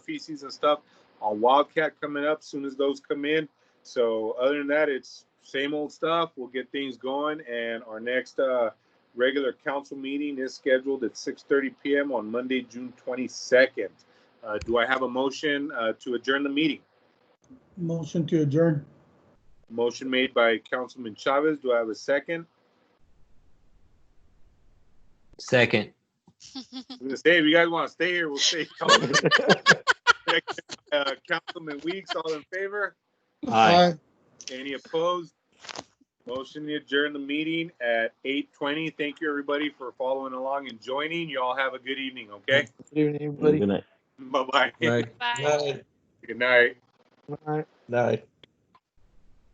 feces and stuff on Wildcat coming up soon as those come in. So other than that, it's same old stuff. We'll get things going, and our next uh, regular council meeting is scheduled at 6:30 p.m. on Monday, June 22nd. Uh, do I have a motion uh, to adjourn the meeting? Motion to adjourn. Motion made by Councilman Chavez. Do I have a second? Second. I'm gonna say, if you guys want to stay here, we'll stay. Uh, Councilman Weeks, all in favor? Aye. Any opposed? Motion to adjourn the meeting at 8:20. Thank you, everybody, for following along and joining. You all have a good evening, okay? Good evening, everybody. Bye-bye. Bye. Good night. Good night. Aye.